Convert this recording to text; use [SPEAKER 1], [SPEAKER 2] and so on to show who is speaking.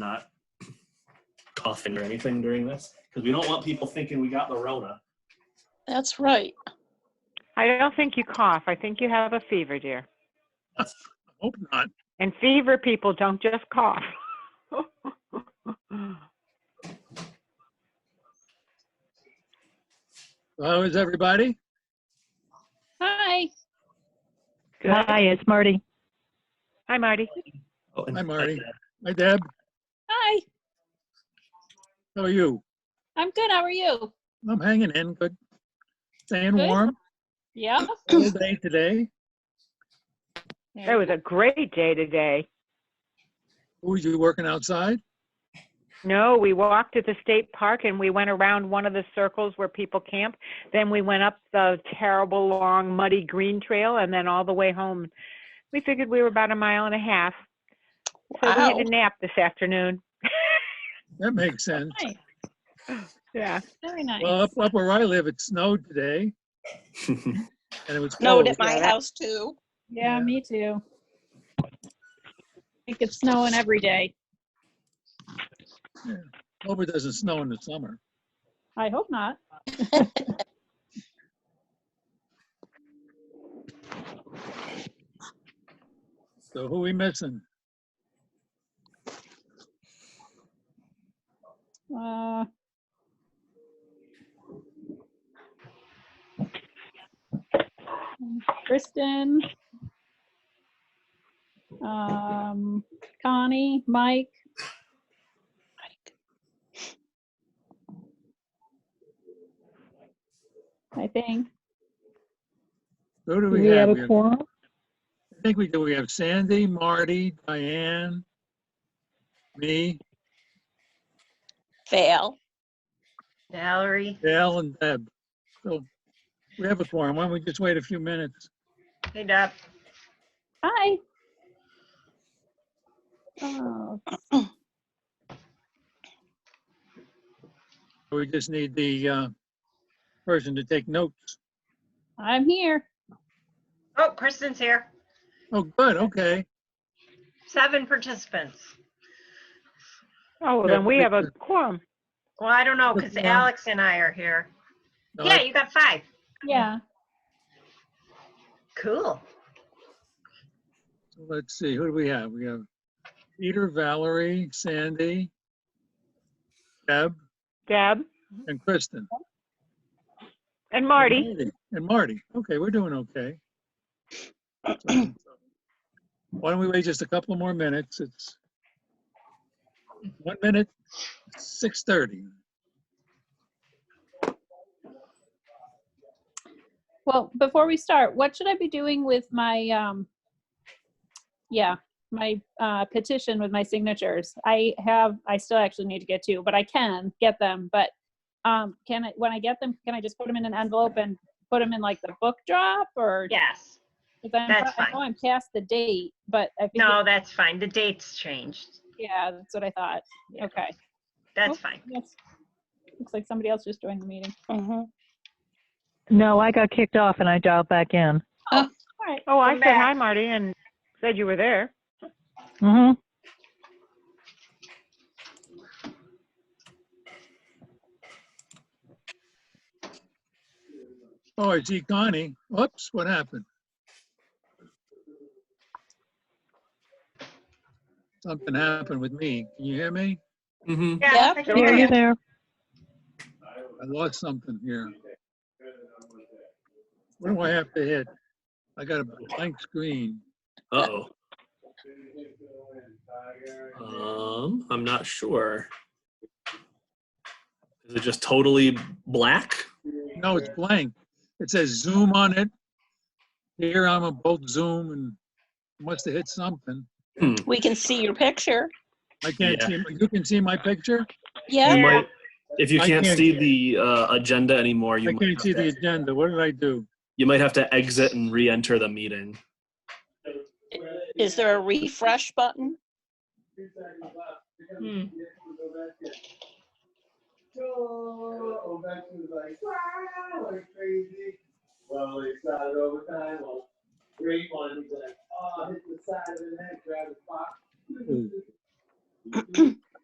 [SPEAKER 1] not coughing or anything during this, because we don't want people thinking we got the Rona.
[SPEAKER 2] That's right.
[SPEAKER 3] I don't think you cough. I think you have a fever, dear.
[SPEAKER 4] Hope not.
[SPEAKER 3] And fever people don't just cough.
[SPEAKER 4] How is everybody?
[SPEAKER 2] Hi.
[SPEAKER 3] Hi,
[SPEAKER 5] Hi, it's Marty.
[SPEAKER 3] Hi, Marty.
[SPEAKER 1] Oh, and-
[SPEAKER 4] Hi, Marty. Hi, Deb.
[SPEAKER 2] Hi.
[SPEAKER 4] How are you?
[SPEAKER 2] I'm good. How are you?
[SPEAKER 4] I'm hanging in good. Staying
[SPEAKER 2] Good.
[SPEAKER 4] warm
[SPEAKER 2] Yeah.
[SPEAKER 4] all day today.
[SPEAKER 3] It was a great day today.
[SPEAKER 4] Who was you working outside?
[SPEAKER 3] No, we walked to the state park and we went around one of the circles where people camp. Then we went up the terrible long muddy green trail and then all the way home. We figured we were about a mile and a half. So we had
[SPEAKER 2] Wow.
[SPEAKER 3] a nap this afternoon.
[SPEAKER 4] That makes sense.
[SPEAKER 2] Nice.
[SPEAKER 3] Yeah.
[SPEAKER 2] Very nice.
[SPEAKER 4] Well, up, up where I live, it snowed today Mm-hmm. and it was
[SPEAKER 2] Snowed
[SPEAKER 4] cold.
[SPEAKER 2] at my
[SPEAKER 3] yeah.
[SPEAKER 2] house too.
[SPEAKER 4] Yeah, Yeah.
[SPEAKER 6] me too.
[SPEAKER 2] It gets snowing every day.
[SPEAKER 4] Hope it doesn't snow in the summer.
[SPEAKER 6] I hope not.
[SPEAKER 4] So who we missing?
[SPEAKER 6] Uh, Kristen. Um, Connie, Mike. I think.
[SPEAKER 4] Who do
[SPEAKER 5] Do
[SPEAKER 4] we
[SPEAKER 5] we have
[SPEAKER 4] have? We
[SPEAKER 5] a
[SPEAKER 4] have-
[SPEAKER 5] quorum?
[SPEAKER 4] I think we do. We have Sandy, Marty, Diane, me,
[SPEAKER 2] Fail.
[SPEAKER 7] Valerie,
[SPEAKER 4] Dale and Deb. So we have a forum. Why don't we just wait a few minutes?
[SPEAKER 7] hey Deb.
[SPEAKER 6] Hi. Oh,
[SPEAKER 4] We just need the uh, person to take notes.
[SPEAKER 6] I'm here.
[SPEAKER 7] Oh, Kristen's here.
[SPEAKER 4] Oh, good, okay.
[SPEAKER 7] Seven participants.
[SPEAKER 3] Oh, well, then we have a quorum.
[SPEAKER 7] Well, I don't know, because
[SPEAKER 4] Yeah.
[SPEAKER 7] Alex and I are here.
[SPEAKER 4] No,
[SPEAKER 7] Yeah, you got five.
[SPEAKER 6] Yeah.
[SPEAKER 7] Cool.
[SPEAKER 4] so Let's see, who do we have? We have Peter, Valerie, Sandy, Deb,
[SPEAKER 3] Deb
[SPEAKER 4] and Kristen.
[SPEAKER 3] and Marty.
[SPEAKER 4] And Marty. Okay, we're doing okay. So, Why don't we wait just a couple more minutes? It's one minute, 6:30.
[SPEAKER 6] Well, before we start, what should I be doing with my, um, yeah, my, uh, petition with my signatures? I have, I still actually need to get two, but I can get them, but, um, can I, when I get them, can I just put them in an envelope and put them in like the book drop or?
[SPEAKER 7] Yes.
[SPEAKER 6] 'cause I'm-
[SPEAKER 7] that's
[SPEAKER 6] I know I'm past the date, but I think,
[SPEAKER 7] No, that's fine. The date's changed.
[SPEAKER 6] yeah, that's what I thought.
[SPEAKER 7] Yeah.
[SPEAKER 6] Okay.
[SPEAKER 7] That's fine.
[SPEAKER 6] Yes. Looks like somebody else just joined the meeting.
[SPEAKER 2] Mhm.
[SPEAKER 5] No, I got kicked off and I dialed back in.
[SPEAKER 6] All right.
[SPEAKER 3] Oh, I
[SPEAKER 7] Come
[SPEAKER 3] said
[SPEAKER 7] back.
[SPEAKER 3] hi, Marty, and said you were there.
[SPEAKER 5] hmm
[SPEAKER 4] Oh, I see Connie. Whoops, what happened? Something happened with me. Can you hear me?
[SPEAKER 1] Mhm.
[SPEAKER 7] Yeah, I
[SPEAKER 2] Yep.
[SPEAKER 7] can
[SPEAKER 5] Are
[SPEAKER 7] hear
[SPEAKER 5] you
[SPEAKER 7] you.
[SPEAKER 5] there?
[SPEAKER 4] I lost something here. What do I have to hit? I got a blank screen.
[SPEAKER 1] Uh-oh. Um, I'm not sure. Is it just totally black?
[SPEAKER 4] No, it's blank. It says Zoom on it. Here I'm on both Zoom and must have hit something.
[SPEAKER 1] Hmm.
[SPEAKER 2] We can see your picture.
[SPEAKER 4] I can't
[SPEAKER 1] Yeah.
[SPEAKER 4] see, you can see my picture?
[SPEAKER 2] Yeah.
[SPEAKER 1] You might, if you
[SPEAKER 4] I
[SPEAKER 1] can't
[SPEAKER 4] can't-
[SPEAKER 1] see the uh, agenda anymore, you
[SPEAKER 4] I
[SPEAKER 1] might,
[SPEAKER 4] can't
[SPEAKER 1] have
[SPEAKER 4] see the
[SPEAKER 1] to,
[SPEAKER 4] agenda. What did I do?
[SPEAKER 1] you might have to exit and re-enter the meeting.
[SPEAKER 2] Is there a refresh button?
[SPEAKER 7] Hmm.